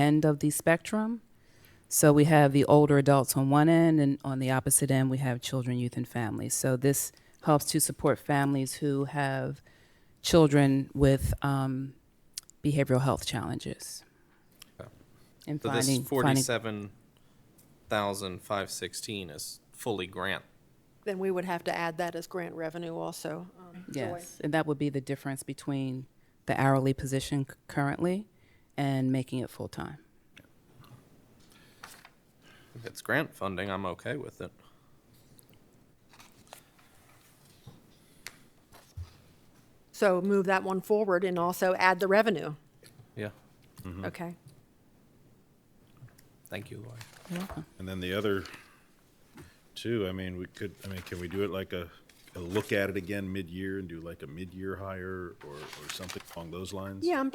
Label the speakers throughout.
Speaker 1: end of the spectrum. So we have the older adults on one end, and on the opposite end, we have children, youth, and families. So this helps to support families who have children with um, behavioral health challenges. And
Speaker 2: So this
Speaker 1: finding, finding,
Speaker 2: forty-seven thousand five sixteen is fully grant.
Speaker 3: Then we would have to add that as grant revenue also. um, Joy.
Speaker 1: yes, and that would be the difference between the hourly position c- currently and making it full-time.
Speaker 2: If it's grant funding, I'm okay with it.
Speaker 3: So move that one forward and also add the revenue.
Speaker 2: Yeah,
Speaker 3: Okay.
Speaker 2: thank you, Lori.
Speaker 4: And then the other two, I mean, we could, I mean, can we do it like a, a look at it again mid-year and do like a mid-year hire or, or something along those lines?
Speaker 3: Yeah, I'm-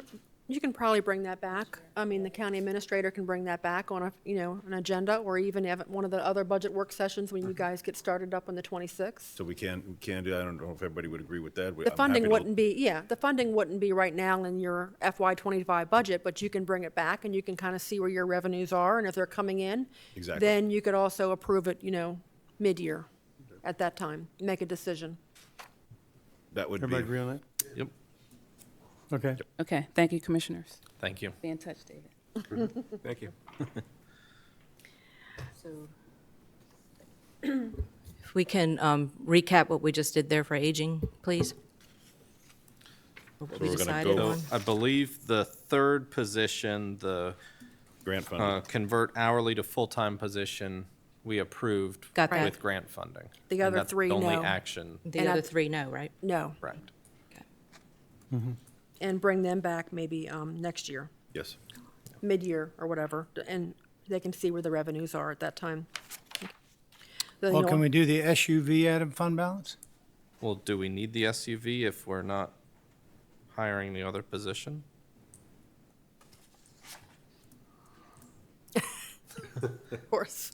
Speaker 3: you can probably bring that back. I mean, the county administrator can bring that back on a, you know, an agenda or even have it one of the other budget work sessions when you guys get started up on the 26th.
Speaker 4: So we can, we can do, I don't know if everybody would agree with that.
Speaker 3: The funding wouldn't be, yeah, the funding wouldn't be right now in your FY '25 budget, but you can bring it back and you can kind of see where your revenues are and if they're coming in.
Speaker 4: Exactly.
Speaker 3: Then you could also approve it, you know, mid-year at that time, make a decision.
Speaker 4: That would
Speaker 5: Everybody
Speaker 4: be,
Speaker 5: agree on that?
Speaker 2: Yep,
Speaker 5: Okay.
Speaker 1: Okay, thank you, commissioners.
Speaker 2: thank you.
Speaker 1: Be in touch, David.
Speaker 5: Thank you.
Speaker 6: If we can um, recap what we just did there for aging, please? Or What we
Speaker 4: we're gonna
Speaker 6: decided
Speaker 4: go-
Speaker 6: on?
Speaker 2: So I believe the third position, the
Speaker 4: grant
Speaker 2: uh,
Speaker 4: funding,
Speaker 2: convert hourly to full-time position, we approved
Speaker 6: Got that.
Speaker 2: with grant funding.
Speaker 3: The
Speaker 2: And
Speaker 3: other
Speaker 2: that's
Speaker 3: three,
Speaker 2: the Only
Speaker 3: no.
Speaker 2: action,
Speaker 6: The
Speaker 3: and I-
Speaker 6: other three, no, right?
Speaker 3: No,
Speaker 2: right.
Speaker 3: and bring them back maybe um, next year,
Speaker 4: yes.
Speaker 3: mid-year or whatever, and they can see where the revenues are at that time. The, you
Speaker 5: Well,
Speaker 3: know,
Speaker 5: can we do the SUV out of fund balance?
Speaker 2: Well, do we need the SUV if we're not hiring the other position?
Speaker 3: Of course.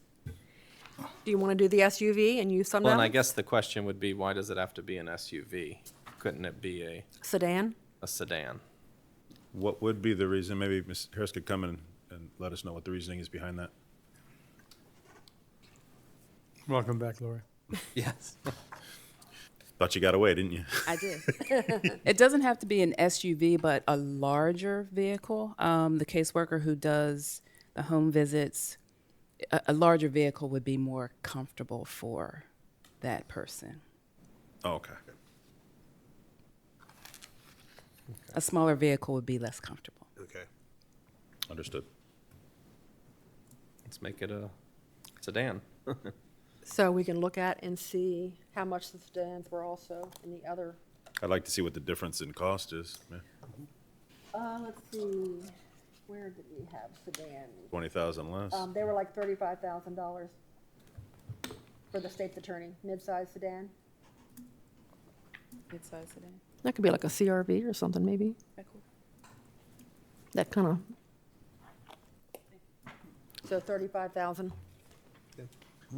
Speaker 3: Do you want to do the SUV and use some
Speaker 2: Well, and I
Speaker 3: of
Speaker 2: guess the question would be, why does it have to be an SUV? Couldn't it be a,
Speaker 3: sedan?
Speaker 2: a sedan?
Speaker 4: What would be the reason, maybe Ms. Harris could come in and let us know what the reasoning is behind that?
Speaker 5: Welcome back, Laura.
Speaker 2: Yes.
Speaker 4: Thought you got away, didn't you?
Speaker 1: I did. it doesn't have to be an SUV, but a larger vehicle. Um, the caseworker who does the home visits, a, a larger vehicle would be more comfortable for that person.
Speaker 4: Oh, okay.
Speaker 1: A smaller vehicle would be less comfortable.
Speaker 4: Okay. Understood.
Speaker 2: Let's make it a sedan.
Speaker 3: So we can look at and see how much the sedans were also in the other.
Speaker 4: I'd like to see what the difference in cost is.
Speaker 3: Uh, let's see, where did we have sedan?
Speaker 4: Twenty thousand less.
Speaker 3: Um, they were like thirty-five thousand dollars for the state's attorney, mid-size sedan.
Speaker 1: Mid-size sedan.
Speaker 3: That could be like a CRV or something, maybe. That kind of. So thirty-five thousand.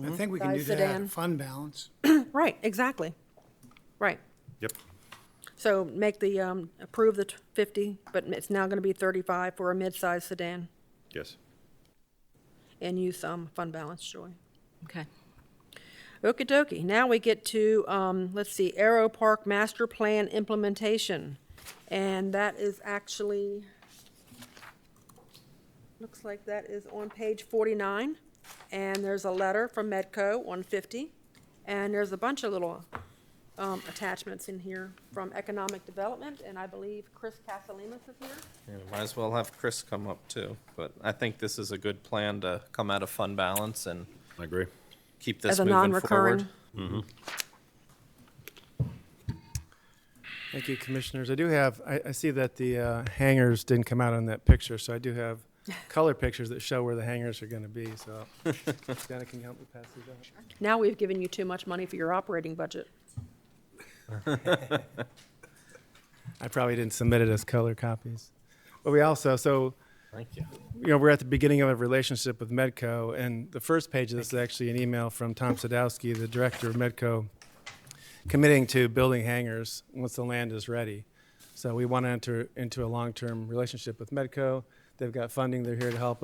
Speaker 5: I think we can do
Speaker 3: Size
Speaker 5: that out
Speaker 3: sedan.
Speaker 5: of fund balance.
Speaker 3: Right, exactly. Right.
Speaker 4: Yep.
Speaker 3: So make the, um, approve the t- fifty, but it's now gonna be thirty-five for a mid-size sedan
Speaker 4: Yes.
Speaker 3: and use some fund balance, Joy.
Speaker 6: Okay.
Speaker 3: Okey dokey. Now we get to, um, let's see, Aero Park Master Plan Implementation. And that is actually, looks like that is on page forty-nine. And there's a letter from Medco on fifty. And there's a bunch of little, um, attachments in here from Economic Development. And I believe Chris Casalemas is here.
Speaker 2: Yeah, might as well have Chris come up too, but I think this is a good plan to come out of fund balance and
Speaker 4: I agree.
Speaker 2: keep
Speaker 3: As
Speaker 2: this
Speaker 3: a
Speaker 2: moving
Speaker 3: non-recurring.
Speaker 2: forward.
Speaker 5: Thank you, commissioners. I do have, I, I see that the uh, hangers didn't come out on that picture, so I do have color pictures that show where the hangers are going to be, so. Dana, can you help me pass these out?
Speaker 3: Now we've given you too much money for your operating budget.
Speaker 5: I probably didn't submit it as color copies. But we also, so
Speaker 2: Thank you.
Speaker 5: you know, we're at the beginning of a relationship with Medco, and the first page of this is actually an email from Tom Sadowski, the director of Medco, committing to building hangars once the land is ready. So we want to enter into a long-term relationship with Medco. They've got funding. They're here to help